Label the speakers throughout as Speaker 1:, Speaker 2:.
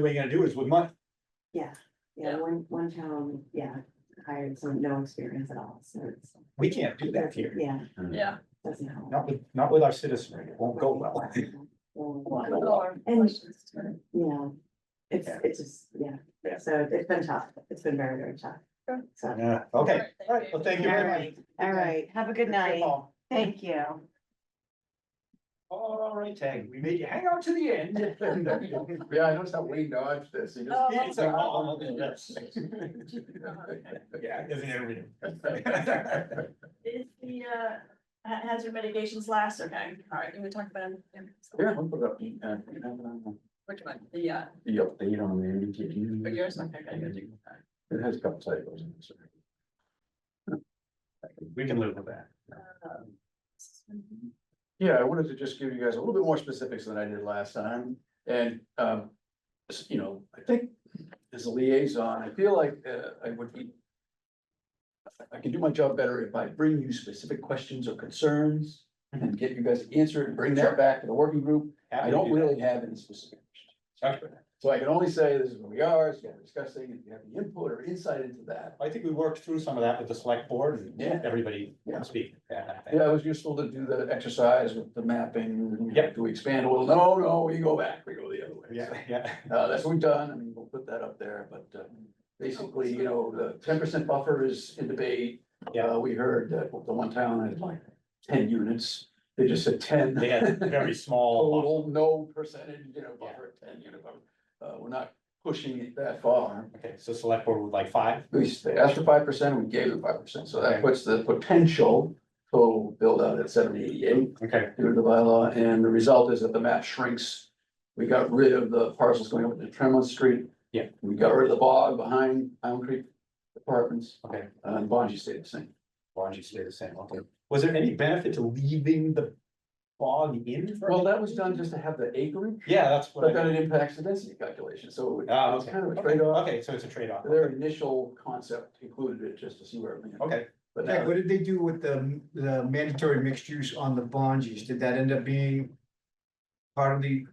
Speaker 1: way you're gonna do is with money.
Speaker 2: Yeah, yeah,
Speaker 3: Yeah.
Speaker 2: one, one town, yeah, hired someone, no experience at all, so it's,
Speaker 1: We can't do that here.
Speaker 2: yeah,
Speaker 3: Yeah.
Speaker 2: doesn't help.
Speaker 1: Not with, not with our citizenry. It won't go well.
Speaker 2: Well,
Speaker 3: And
Speaker 2: You know, it's,
Speaker 1: Yeah.
Speaker 2: it's just, yeah, so it's been tough, it's been very, very tough.
Speaker 3: Sure.
Speaker 2: So,
Speaker 1: Yeah, okay. All right, well, thank you
Speaker 2: All
Speaker 1: very much.
Speaker 2: right. all right, have a good night, thank you.
Speaker 1: All right, Tag, we made you hang out to the end.
Speaker 4: Yeah, I noticed how Wayne dodged this. He just-
Speaker 1: It's like, oh, yes. Yeah, isn't everything?
Speaker 3: Is the uh ha- hazard mitigations last, okay, all right, can we talk about? them?
Speaker 4: Yeah, I'll put up the, uh, the
Speaker 3: Which one, the uh,
Speaker 4: update on the MBTA.
Speaker 3: for yours, okay, I gotta do that.
Speaker 4: It has a couple cycles in it. so.
Speaker 1: We can live with that.
Speaker 3: Um,
Speaker 4: Yeah, I wanted to just give you guys a little bit more specifics than I did last time, and, um, s- you know, I think as a liaison, I feel like, uh, I would be. I can do my job better if I bring you specific questions or concerns and get you guys to answer it and bring
Speaker 1: Sure.
Speaker 4: that back to the working group.
Speaker 1: Happy
Speaker 4: I
Speaker 1: to
Speaker 4: don't
Speaker 1: do that.
Speaker 4: really have any specific.
Speaker 1: Okay.
Speaker 4: So I can only say this is where we are, it's what we're discussing, if you have any input or insight into that.
Speaker 1: I think we worked through some of that with the select board and
Speaker 4: Yeah.
Speaker 1: everybody
Speaker 4: Yeah.
Speaker 1: can speak. Yeah.
Speaker 4: Yeah, it was useful to do the exercise with the mapping.
Speaker 1: Yep.
Speaker 4: Do we expand a little? No, no, we go back, we go the other way.
Speaker 1: Yeah, yeah.
Speaker 4: Uh, that's what we've done, I mean, we'll put that up there, but, uh, basically, you know, the ten percent buffer is in debate.
Speaker 1: Yeah.
Speaker 4: Uh, we heard that the one town had like ten units, they just said ten.
Speaker 1: They had very small,
Speaker 4: Total, no percentage, you know, buffer, ten unit buffer. Uh, we're not pushing it that far.
Speaker 1: okay, so select board with like five,
Speaker 4: We, s- they asked for five percent, we gave them five percent, so that puts the potential total build out at seven eighty-eight
Speaker 1: okay,
Speaker 4: due to the bylaw, and the result is that the map shrinks. We got rid of the parcels going up to Tremont Street.
Speaker 1: Yeah.
Speaker 4: We got rid of the bog behind Elm Creek Apartments,
Speaker 1: okay.
Speaker 4: uh, and Bonji stayed the same.
Speaker 1: Bonji stay the same, okay. Was there any benefit to leaving the bog in? for
Speaker 4: Well, that
Speaker 1: everybody?
Speaker 4: was done just to have the acreage,
Speaker 1: Yeah, that's what
Speaker 4: but
Speaker 1: I.
Speaker 4: then it impacts the density calculation, so it-
Speaker 1: Ah,
Speaker 4: it's
Speaker 1: okay.
Speaker 4: kind of a
Speaker 1: Okay,
Speaker 4: trade-off.
Speaker 1: Okay, so it's a trade-off.
Speaker 4: Their initial concept included it just to see where it went.
Speaker 1: Okay,
Speaker 4: But
Speaker 5: Jack,
Speaker 4: now,
Speaker 5: what did they do with the, the mandatory mixed use on the Bonges? Did that end up being part of the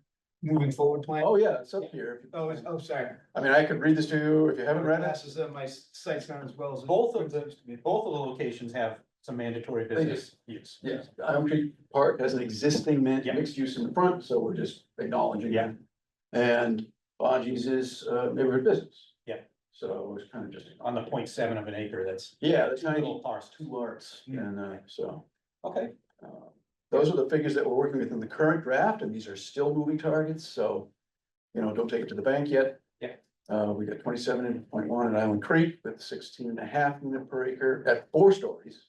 Speaker 5: moving forward plan?
Speaker 4: oh, yeah, it's up here.
Speaker 5: Oh, it's, oh, sorry.
Speaker 4: I mean, I could read this to you if you haven't read it.
Speaker 5: Glasses on, my sight's not as well as.
Speaker 1: both of the, both of the locations have some mandatory business use.
Speaker 4: Yes, Elm Creek Park has an existing man-
Speaker 1: Yeah.
Speaker 4: mixed use in the front, so we're just acknowledging.
Speaker 1: Yeah.
Speaker 4: that. And Bonji's is uh, neighborhood business.
Speaker 1: Yeah.
Speaker 4: So it's kind of just.
Speaker 1: On the 0.7 of an acre, that's
Speaker 4: Yeah, the
Speaker 1: two little
Speaker 4: tiny,
Speaker 1: parcels.
Speaker 4: two larts, and uh, so.
Speaker 1: Okay,
Speaker 4: uh, Those are the figures that we're working with in the current draft, and these are still moving targets, so, you know, don't take it to the bank yet.
Speaker 1: Yeah.
Speaker 4: Uh, we got twenty-seven point one at Island Creek with 16 and a half unit per acre at four stories.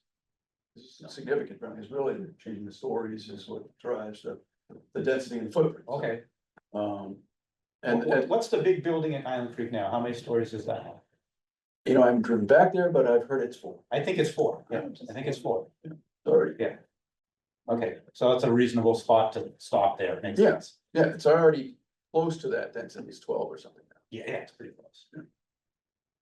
Speaker 4: This is significant, right? It's really changing the stories is what drives the, the density and footprint.
Speaker 1: okay.
Speaker 4: Um, and,
Speaker 1: And
Speaker 4: and,
Speaker 1: what's the big building at Island Creek now? How many stories is that?
Speaker 4: you know, I haven't driven back there, but I've heard it's four,
Speaker 1: I think it's four, yeah, I think it's four.
Speaker 4: sorry.
Speaker 1: Okay, so that's a reasonable spot to stop there, makes
Speaker 4: Yeah.
Speaker 1: sense.
Speaker 4: Yeah, it's already close to that density, it's twelve or something.
Speaker 1: Yeah, yeah, it's pretty close.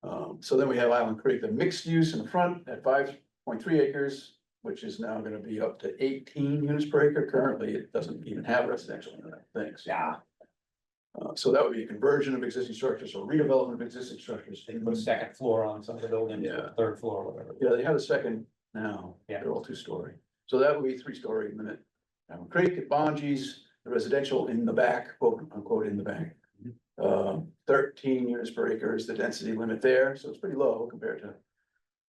Speaker 4: Um, so then we have Island Creek, the mixed use in the front at five point three acres, which is now gonna be up to eighteen units per acre. Currently, it doesn't even have residential in it, thanks.
Speaker 1: Yeah.
Speaker 4: Uh, so that would be a conversion of existing structures or redevelopment of existing structures.
Speaker 1: They put a second floor on some of the buildings, or
Speaker 4: Yeah.
Speaker 1: third floor, or whatever.
Speaker 4: Yeah, they have a second now.
Speaker 1: Yeah.
Speaker 4: They're all two-story. So that would be three-story in the minute. Island um, Creek at Bonji's, the residential in the back, quote unquote, in the back. Um, thirteen units per acre is the density limit there, so it's pretty low compared to,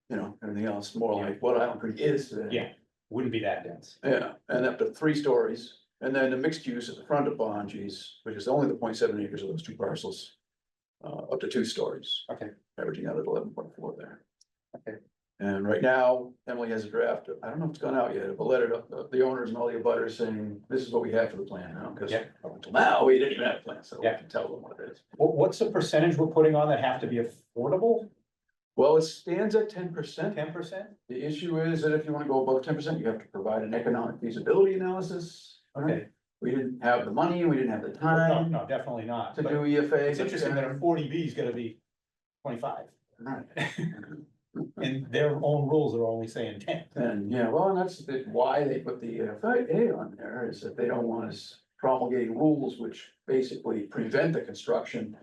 Speaker 4: you know, everything else, more like what Island Creek is today.
Speaker 1: Yeah. Wouldn't be that dense.
Speaker 4: Yeah, and up to three stories, and then the mixed use at the front of Bonji's, which is only the 0.7 acres of those two parcels. Uh, up to two stories.
Speaker 1: Okay.
Speaker 4: Averaging out at eleven point four there.
Speaker 1: Okay.
Speaker 4: And right now, Emily has a draft, I don't know if it's gone out yet, but letter to uh, the owners and all the abutters saying, this is what we have for the plan now, because
Speaker 1: Yeah.
Speaker 4: up until now, we didn't even have a plan, so we
Speaker 1: Yeah.
Speaker 4: can tell them what it is.
Speaker 1: What, what's the percentage we're putting on that have to be affordable?
Speaker 4: Well, it stands at ten percent.
Speaker 1: Ten percent?
Speaker 4: The issue is that if you want to go above ten percent, you have to provide an economic feasibility analysis.
Speaker 1: Okay.
Speaker 4: We didn't have the money, we didn't have the
Speaker 1: No,
Speaker 4: time
Speaker 1: no, definitely not.
Speaker 4: to
Speaker 1: But
Speaker 4: do E EFA.
Speaker 1: It's interesting that a forty B is gonna be twenty-five,
Speaker 4: Right.
Speaker 1: and their own rules are only saying ten.
Speaker 4: E And, yeah, well, and that's the- why they put the EFA on there, is that they don't want us promulgating rules which basically prevent the construction